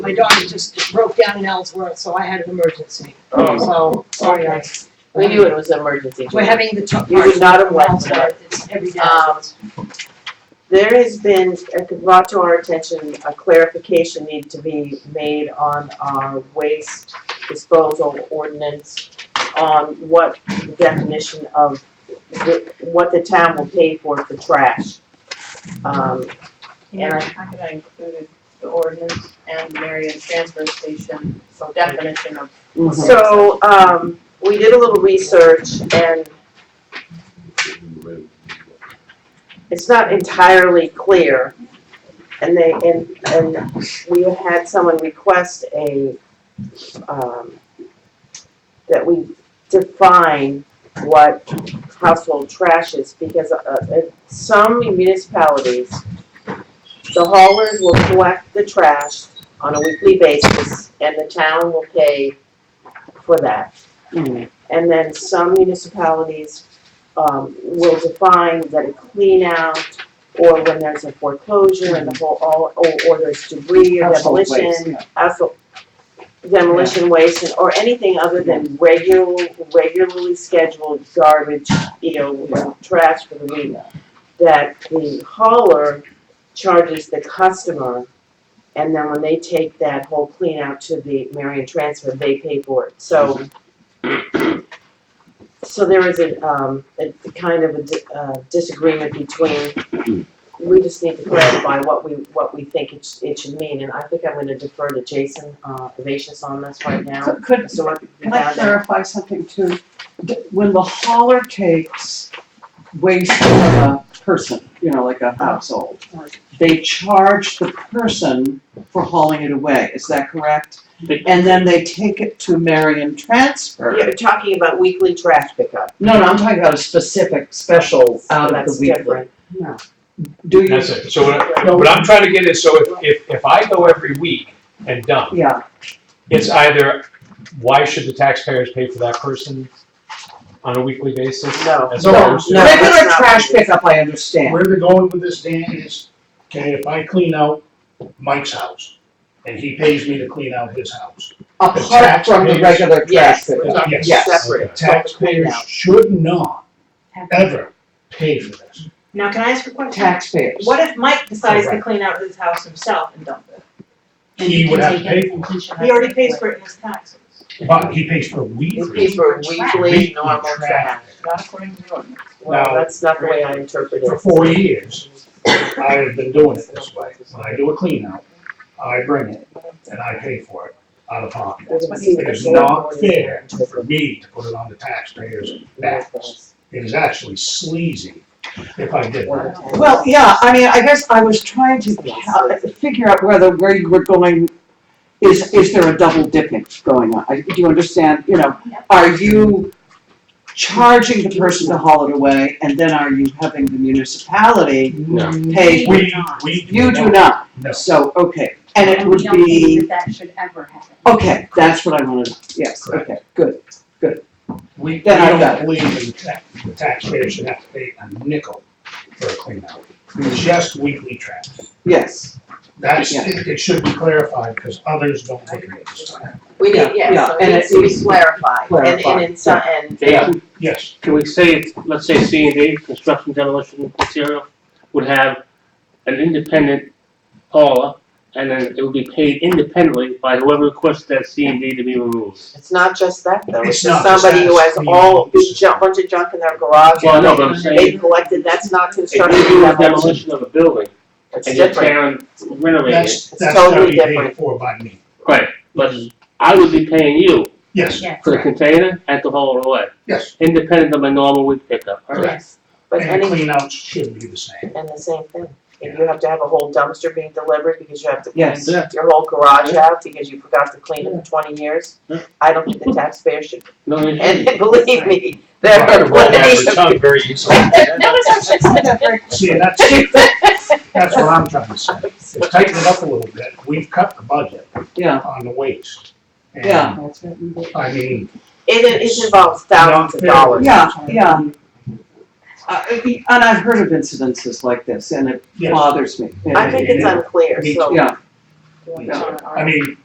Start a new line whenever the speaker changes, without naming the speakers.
my daughter just broke down in Ellsworth, so I had an emergency.
Oh. Um,
So, sorry, I.
We knew it was an emergency.
Um, We're having the top.
You would not have
part in
liked that.
Ellsworth, it's every day.
Um, There has been, uh, brought to our attention, a clarification need to be made on our waste disposal ordinance on what the definition of, the- what the town will pay for for trash. Um,
And I kind of included the ordinance and Marion transfer station, so definition of.
So, um, we did a little research and it's not entirely clear. And they, and, and we had someone request a, um, that we define what household trash is because, uh, in some municipalities, the haulers will collect the trash on a weekly basis and the town will pay for that.
Mm-hmm.
And then some municipalities um, will define that a clean out or when there's a foreclosure and the whole, all, or, or there's debris or
Household waste,
demolition, household demolition waste and, or anything other than regular, regularly scheduled garbage, you know, trash for the week. That the hauler charges the customer and then when they take that whole clean out to the Marion Transfer, they pay for it. So, so there is a, um, a a kind of a di- uh, disagreement between, we just need to clarify what we, what we think it, sh- it should mean. And I think I'm gonna defer to Jason, uh, Evasions on this right now.
Could, could,
So what we
can I
found out-
clarify something too? D- When the hauler takes waste from a person, you know, like a household, they charge the person for hauling it away, is that correct?
They-
And then they take it to Marion Transfer.
You're talking about weekly trash pickup.
No, no, I'm talking about a specific special out of Um, the
Oh, That's
weekly.
different.
Do you,
That's it, so what, I- what I'm trying to get is, so if, if, if I go every week and dump,
yeah,
it's either, why should the taxpayers pay for that person on a weekly basis?
No.
As
No,
opposed to-
No, that's
regular
not-
trash pickup, I understand.
Where they're going with this, Dan, is, okay, if I clean out Mike's house, and he pays me to clean out his house.
Apart from the
Taxpayers.
regular trash
Yes.
pickup.
Yes,
Yes.
Separate.
the taxpayers should not ever pay for this.
Now, can I ask a question?
Taxpayers.
What if Mike decides to clean out his house himself and dump it?
He would have to pay for
He already pays for it in his taxes,
it, but he pays for weed.
These people are weekly
Weekly
normal trash.
trash.
not according to the ordinance.
Well,
Now-
that's not the way I interpret it.
For four years, I have been doing it this way. When I do a clean out, I bring it, and I pay for it out of pocket. It is not fair for me to put it on the taxpayers' backs. It is actually sleazy if I did that.
Well, yeah, I mean, I guess I was trying to ca- figure out whether, where you were going, is, is there a double dipping going on? I- Do you understand, you know, are you charging the person to haul it away, and then are you having the municipality
No.
pay?
We, we.
You do not,
No.
so, okay, and it
And
would
we don't
be,
believe that that should ever happen.
okay, that's what I wanted, yes, okay, good.
We, we
Then I got
don't
it.
believe in tax, the taxpayer should have to pay a nickel for a clean out. Just weekly trash.
Yes,
That's,
Yeah.
it it should be clarified because others don't look at it this time.
We
Yeah,
need, yeah,
yeah,
so it
and
needs
it-
to be clarified, and,
Clarified,
and in some, and.
Yeah.
Yes,
Can we say, it's- let's say C and D, construction demolition material, would have an independent hauler, and then it would be paid independently by whoever requests that C and D to be removed.
It's not just that though, it's
It's
just
not just
somebody who
that,
has
it's
all,
the-
big junk, bunch of junk in their garage.
Well, I
and
know, but I'm
they- They
saying-
collected, that's not
If you
construction
do a
demolition,
demolition of a building,
it's
and you're
different.
tearing, renovating it,
that's, that's gotta
totally
be paid
different.
for by me.
right, but I would be paying you
Yes,
Yes.
for the container and to haul it away,
yes.
independent of my normal week pickup, right?
Yes.
But
And
any,
the clean outs should be the same.
and the same thing, if you have to have a whole dumpster being delivered because you have to
yes.
Yeah.
clean your whole garage out because you forgot to clean it for twenty years,
Yeah.
I don't think the taxpayer should,
No, you
and
shouldn't.
believe me, there
I
are
could roll that
plenty
over the
of.
tongue very easily.
No,
See, that's, that's what I'm trying to say. It's tightened it up a little bit. We've cut the budget
Yeah.
on the waste. And,
Yeah.
I mean,
It, it involves thousands of
Not fair.
dollars.
Yeah, yeah. Uh, and I've heard of incidences like this, and it
yes.
bothers me.
I think it's unclear,
Me
so
Yeah,
doing
Yeah.
on our.
I mean,